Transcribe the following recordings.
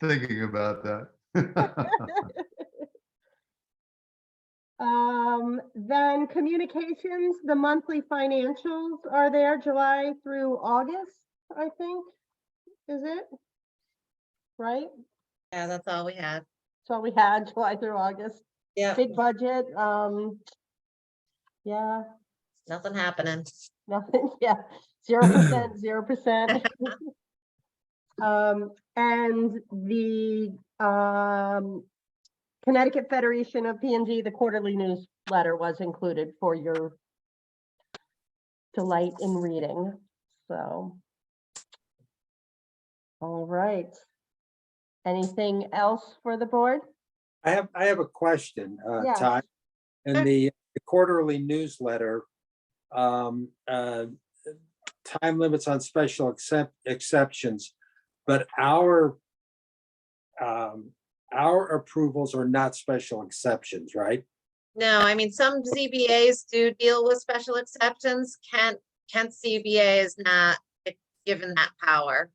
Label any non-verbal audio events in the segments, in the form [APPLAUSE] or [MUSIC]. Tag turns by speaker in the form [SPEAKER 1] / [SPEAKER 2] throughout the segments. [SPEAKER 1] thinking about that. [LAUGHS]
[SPEAKER 2] [LAUGHS] Um, then communications, the monthly financials are there July through August, I think, is it? Right?
[SPEAKER 3] Yeah, that's all we have.
[SPEAKER 2] So we had July through August,
[SPEAKER 3] Yeah,
[SPEAKER 2] big budget, um. Yeah,
[SPEAKER 3] nothing happening.
[SPEAKER 2] nothing, [LAUGHS] yeah, zero percent, zero percent. [LAUGHS] Um, and the, um. Connecticut Federation of P and G, the quarterly newsletter was included for your. Delight in reading, so. All right. Anything else for the board?
[SPEAKER 4] I have, I have a question, uh,
[SPEAKER 2] Yeah.
[SPEAKER 4] Todd.
[SPEAKER 3] Sure.
[SPEAKER 4] In the quarterly newsletter, um, uh, time limits on special except, exceptions, but our um, our approvals are not special exceptions, right?
[SPEAKER 3] No, I mean, some ZBAs do deal with special exceptions. Kent, Kent CBA is not given that power.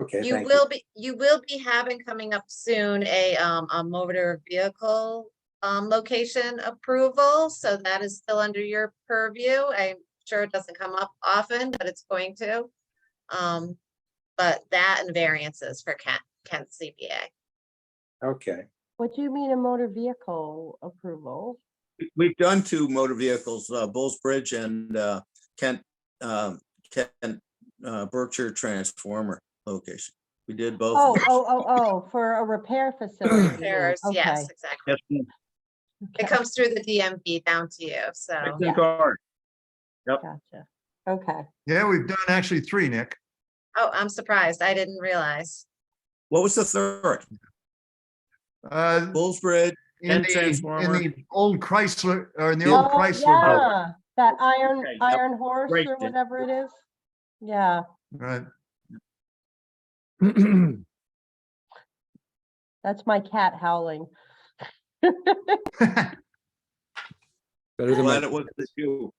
[SPEAKER 4] Okay,
[SPEAKER 3] You
[SPEAKER 4] thank you.
[SPEAKER 3] will be, you will be having coming up soon a, um, a motor vehicle, um, location approval. So that is still under your purview. I'm sure it doesn't come up often, but it's going to. Um, but that and variances for Kent, Kent CBA.
[SPEAKER 4] Okay,
[SPEAKER 2] What do you mean a motor vehicle approval?
[SPEAKER 5] We've done two motor vehicles, uh, Bulls Bridge and, uh, Kent, um, Kent, uh, Berkshire Transformer location. We did both.
[SPEAKER 2] Oh,
[SPEAKER 5] of them.
[SPEAKER 2] oh, oh, oh, for a repair facility. you mean.
[SPEAKER 3] Repairs, yes,
[SPEAKER 2] Okay,
[SPEAKER 3] exactly.
[SPEAKER 6] Yes, ma'am.
[SPEAKER 3] It
[SPEAKER 2] okay,
[SPEAKER 3] comes through the DMV down to you,
[SPEAKER 6] I
[SPEAKER 3] so,
[SPEAKER 6] think our-
[SPEAKER 2] Gotcha. Okay,
[SPEAKER 1] Yeah, we've done actually three, Nick.
[SPEAKER 3] oh, I'm surprised, I didn't realize.
[SPEAKER 5] What was the third?
[SPEAKER 1] Uh,
[SPEAKER 5] Bulls Bridge,
[SPEAKER 1] in
[SPEAKER 6] And
[SPEAKER 1] the, in
[SPEAKER 6] Transformer.
[SPEAKER 1] the old Chrysler, or in the old
[SPEAKER 2] Oh,
[SPEAKER 1] Chrysler.
[SPEAKER 2] yeah, that iron,
[SPEAKER 6] Okay, yep.
[SPEAKER 2] iron horse
[SPEAKER 6] Right
[SPEAKER 2] or
[SPEAKER 6] then.
[SPEAKER 2] whatever it is. Yeah,
[SPEAKER 1] Right.
[SPEAKER 2] that's my cat howling.
[SPEAKER 6] [CLEARS THROAT]
[SPEAKER 7] Better than
[SPEAKER 5] glad
[SPEAKER 7] my,
[SPEAKER 5] it wasn't you.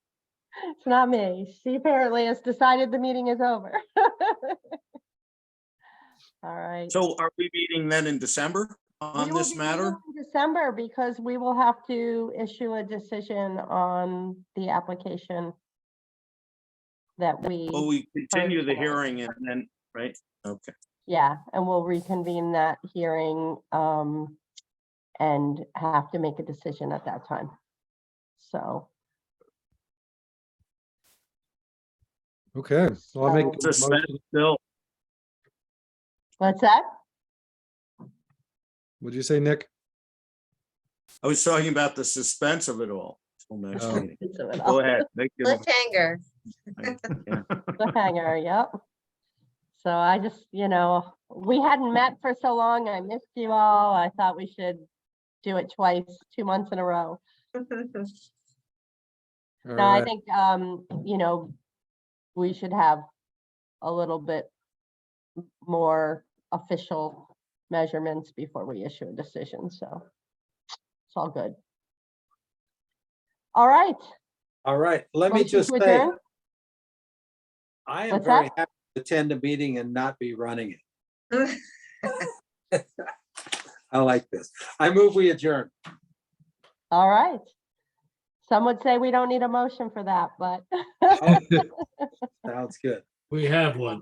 [SPEAKER 2] It's not me. She apparently has decided the meeting is over. [LAUGHS] All right.
[SPEAKER 5] So are we meeting then in December
[SPEAKER 2] We
[SPEAKER 5] on
[SPEAKER 2] will
[SPEAKER 5] this
[SPEAKER 2] be
[SPEAKER 5] matter?
[SPEAKER 2] meeting in December because we will have to issue a decision on the application that we.
[SPEAKER 5] Will we continue the
[SPEAKER 2] Thursday.
[SPEAKER 5] hearing and then, right? Okay.
[SPEAKER 2] Yeah, and we'll reconvene that hearing um and have to make a decision at that time. So,
[SPEAKER 7] okay, so I'll make.
[SPEAKER 2] So-
[SPEAKER 7] a
[SPEAKER 6] Suspend
[SPEAKER 7] motion-
[SPEAKER 6] still.
[SPEAKER 2] what's that?
[SPEAKER 7] What'd you say, Nick?
[SPEAKER 5] I was talking about the suspense of it all. till next
[SPEAKER 7] Oh.
[SPEAKER 5] meeting.
[SPEAKER 2] So it'll-
[SPEAKER 6] Go ahead. make your-
[SPEAKER 3] Cliffhanger,
[SPEAKER 2] Cliffhanger, yep. So I just, you know, we hadn't met for so long. I missed you all. I thought we should do it twice, two months in a row.
[SPEAKER 7] All
[SPEAKER 2] No, I
[SPEAKER 7] right.
[SPEAKER 2] think, um, you know, we should have a little bit m- more official measurements before we issue a decision, so it's all good. All right.
[SPEAKER 4] all right, let me
[SPEAKER 2] motion to
[SPEAKER 4] just say,
[SPEAKER 2] adjourn?
[SPEAKER 4] I am
[SPEAKER 2] What's
[SPEAKER 4] very
[SPEAKER 2] that?
[SPEAKER 4] happy to attend a meeting and not be running it. I like this. I move we adjourn.
[SPEAKER 2] All right. Some would say we don't need a motion for that, but, [LAUGHS]
[SPEAKER 4] Oh, Sounds good.
[SPEAKER 8] We have one.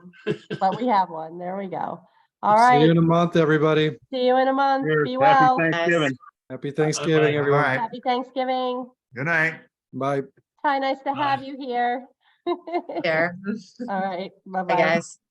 [SPEAKER 2] but we have one. There we go. All
[SPEAKER 7] See you
[SPEAKER 2] right,
[SPEAKER 7] in a month, everybody.
[SPEAKER 2] see you in a month.
[SPEAKER 6] Cheers.
[SPEAKER 2] Be
[SPEAKER 6] Happy
[SPEAKER 2] well.
[SPEAKER 6] Thanksgiving.
[SPEAKER 7] Happy Thanksgiving,
[SPEAKER 1] [LAUGHS] All
[SPEAKER 7] everyone.
[SPEAKER 1] right,
[SPEAKER 2] Happy Thanksgiving.
[SPEAKER 1] good night.
[SPEAKER 7] Bye.
[SPEAKER 2] Hi, nice to
[SPEAKER 8] Bye.
[SPEAKER 2] have you here. [LAUGHS] All
[SPEAKER 3] [LAUGHS] there,
[SPEAKER 2] right,
[SPEAKER 3] Bye,
[SPEAKER 2] bye-bye.
[SPEAKER 3] guys.